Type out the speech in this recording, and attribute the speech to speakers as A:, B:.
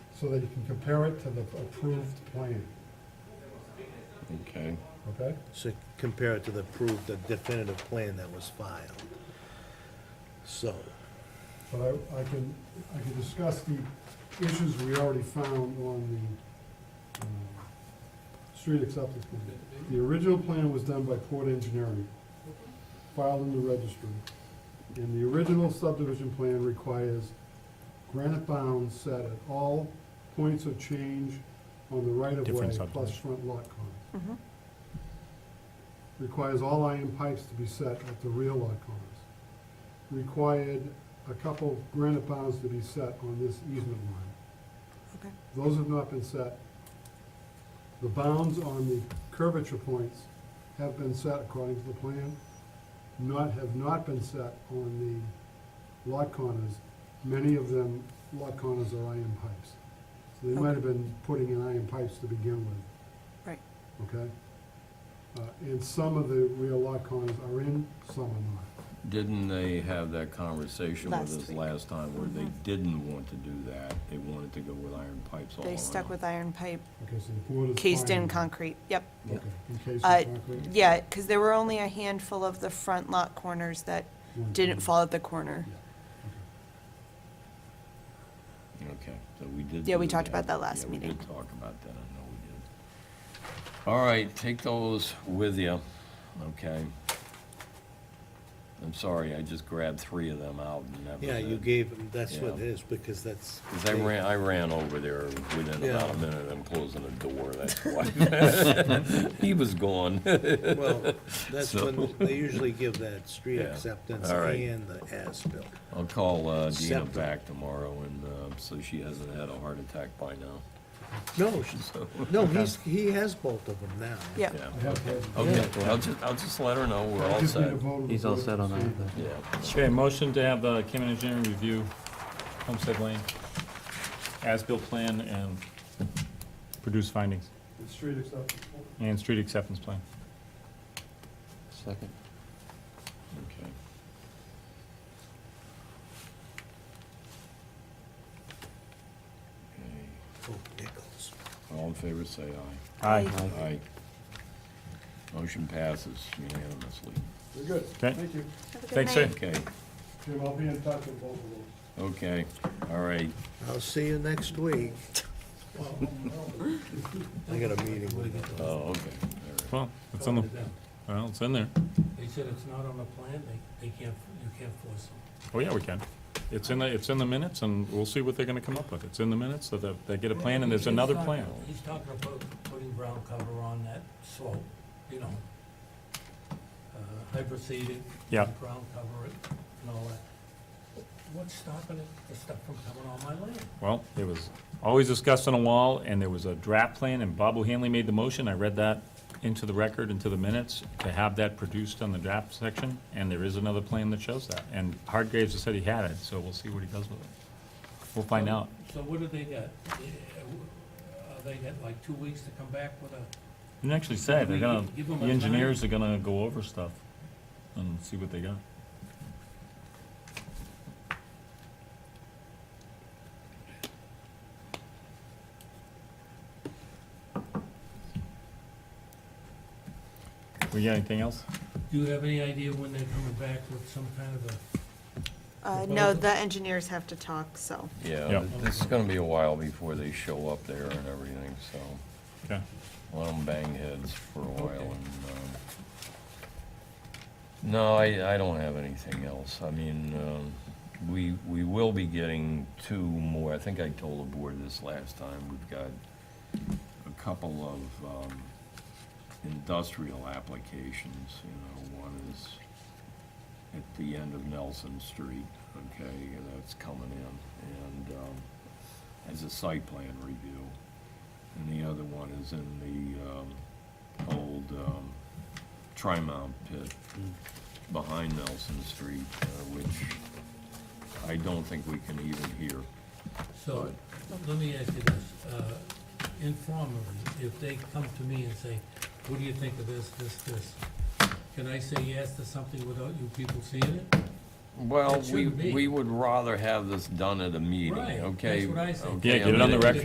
A: so that you can compare it to the approved plan,
B: Okay.
A: okay?
C: So compare it to the approved, the definitive plan that was filed. So,
A: But I, I can, I can discuss the issues we already found on the, um, street acceptance plan. The original plan was done by Port Engineering, filed in the registry. And the original subdivision plan requires granite bounds set at all points of change on the right of way
D: Different
A: plus
D: subdivision.
A: front lot corners.
E: Mm-hmm.
A: Requires all iron pipes to be set at the rear lot corners required a couple granite bounds to be set on this easement line.
E: Okay.
A: Those have not been set. The bounds on the curvature points have been set according to the plan, not, have not been set on the lot corners. Many of them, lot corners are iron pipes. So they might have been putting in iron pipes to begin with
E: Right.
A: okay? Uh, And some of the real lot corners are in, some are not.
B: Didn't they have that conversation
E: Last
B: with us
E: week.
B: last time where they
E: Mhm.
B: didn't want to do that? They wanted to go with iron pipes all around?
E: They stuck with iron pipe,
A: Okay, so the board is.
E: cased in
A: fine.
E: concrete, yep.
B: Yeah.
A: Okay, in cased
E: Uh,
A: in concrete.
E: Yeah, because there were only a handful of the front lot corners that
A: One,
E: didn't
A: two,
E: fall at the corner.
A: yeah, okay.
B: Okay, so we did.
E: Yeah, we
B: do
E: talked about that last
B: Yeah, we
E: meeting.
B: did talk about that, I know we did. All right, take those with you, okay? I'm sorry, I just grabbed three of them out and that was
C: yeah, you
B: it.
C: gave, that's what it
B: Yeah.
C: is, because that's.
B: 'Cause I ran, I ran over there within
C: Yeah.
B: about a minute of him closing the door, that's why. He was gone.
C: Well, that's
B: So-
C: when, they usually give that street
B: Yeah.
C: acceptance
B: All right.
C: and the as-built.
B: I'll call uh, Dina
C: Separate.
B: back tomorrow and, uh, so she hasn't had a heart attack by now,
C: No, she's-
B: so.
C: no, he's, he has both of them now.
E: Yep.
B: Yeah,
A: I have to-
B: okay, I'll just, I'll just let her know we're all
A: Just need
B: set.
A: a vote of the
F: He's all
A: board
F: set on
A: to
F: that,
A: see.
F: though.
B: Yeah.
D: Okay, motion to have the Cayman Engineering review Homestead Lane as-built plan and produce findings
A: The street acceptance.
D: and street acceptance plan.
F: Second.
B: Okay. Okay,
C: Oh, Nichols.
B: All in favor, say aye.
D: Aye.
F: Aye.
B: Aye. Motion passes unanimously.
A: We're good.
D: Okay.
A: Thank you.
E: Have a good
D: Thanks,
E: night.
D: sir.
B: Okay,
A: Jim, I'll be in touch with both of those.
B: okay, all right.
C: I'll see you next week. I got a meeting with him.
B: Oh, okay, all right.
D: Well, it's on the, well, it's in there.
G: They said it's not on the plan, they, they can't, you can't force them.
D: Oh, yeah, we can. It's in the, it's in the minutes, and we'll see what they're gonna come up with. It's in the minutes, so that they get a plan, and there's
G: He's
D: another
G: talking-
D: plan.
G: He's talking about putting ground cover on that slope, you know, uh, hyperseeding.
D: Yeah.
G: Ground cover it and all that. What's stopping it, the stuff from coming on my land?
D: Well, it was always discussed on a wall, and there was a draft plan, and Bob O'Hanley made the motion. I read that into the record, into the minutes, to have that produced on the draft section, and there is another plan that shows that. And Hargraves has said he had it, so we'll see what he does with it. We'll find out.
G: So what do they got? Uh, uh, They got like two weeks to come back with a,
D: Didn't actually say, they're gonna,
G: Give
D: the
G: him a
D: engineers are gonna go over stuff and see what they got. We got anything else?
G: do you have any idea when they're coming back with some kind of a?
E: Uh, no, the engineers have to talk, so.
D: Yeah.
B: Yeah, this is gonna be a while before they show up there and everything, so
D: Okay,
B: let them bang heads for a while and, um, no, I, I don't have anything else. I mean, um, we, we will be getting two more. I think I told the board this last time. We've got a couple of, um, industrial applications, you know, one is at the end of Nelson Street, okay, and that's coming in, and, um, as a site plan review. And the other one is in the, um, old, um, Trimount pit behind Nelson Street, uh, which I don't think we can even hear.
G: So, let me ask you this, uh, informally, if they come to me and say, what do you think of this, this, this? Can I say yes to something without you people seeing it?
B: Well,
G: It
B: we,
G: shouldn't be.
B: we would rather have this done at a meeting,
G: Right,
B: okay?
G: that's what I think.
B: okay,
D: Yeah,
B: I
D: get it on
B: mean,
D: the record.